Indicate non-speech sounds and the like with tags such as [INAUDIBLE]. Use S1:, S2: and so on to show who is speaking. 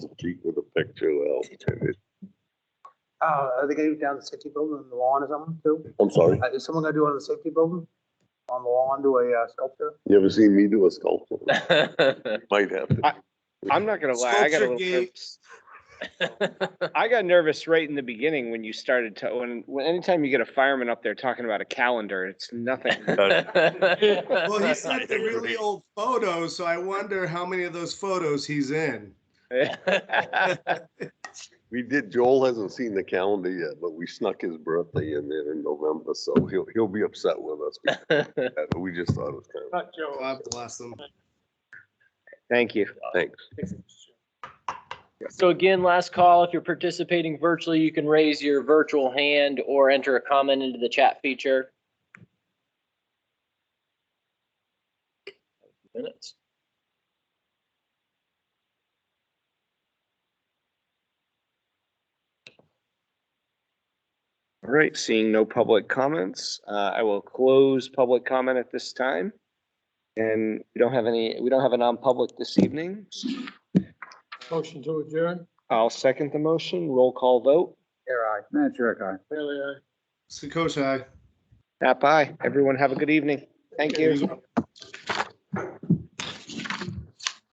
S1: sheet with a picture, well,
S2: Uh, are they gonna do down the safety building on the lawn or something too?
S1: I'm sorry.
S2: Uh, Is someone gonna do it on the safety building? On the lawn, do a uh, sculpture?
S1: You ever seen me do a sculpture?
S3: That's
S1: Might have to.
S4: [LAUGHS] I'm not gonna lie, I got a
S5: Sculpture
S4: little
S5: gate.
S4: nervous. I got nervous right in the beginning when you started to, when, when, anytime you get a fireman up there talking about a calendar, it's nothing.
S5: Well, he sent the really
S1: Agreed.
S5: old photos, so I wonder how many of those photos he's in.
S1: We did, Joel hasn't seen the calendar yet, but we snuck his birthday in there in November, so he'll, he'll be upset with us. because [LAUGHS] of that, But we just thought it was kind
S2: Not Joe.
S5: God bless him.
S4: [LAUGHS] Thank you.
S1: of, thanks.
S3: So again, last call, if you're participating virtually, you can raise your virtual hand or enter a comment into the chat feature. Minutes.
S4: All right, seeing no public comments, uh, I will close public comment at this time. And we don't have any, we don't have a non-public this evening.
S6: Motion to adjourn?
S4: I'll second the motion, roll call vote.
S2: Here I.
S6: Matt Jericho. Bailey, aye.
S5: Sakoshai.
S4: Nap aye. Everyone have a good evening. Thank you.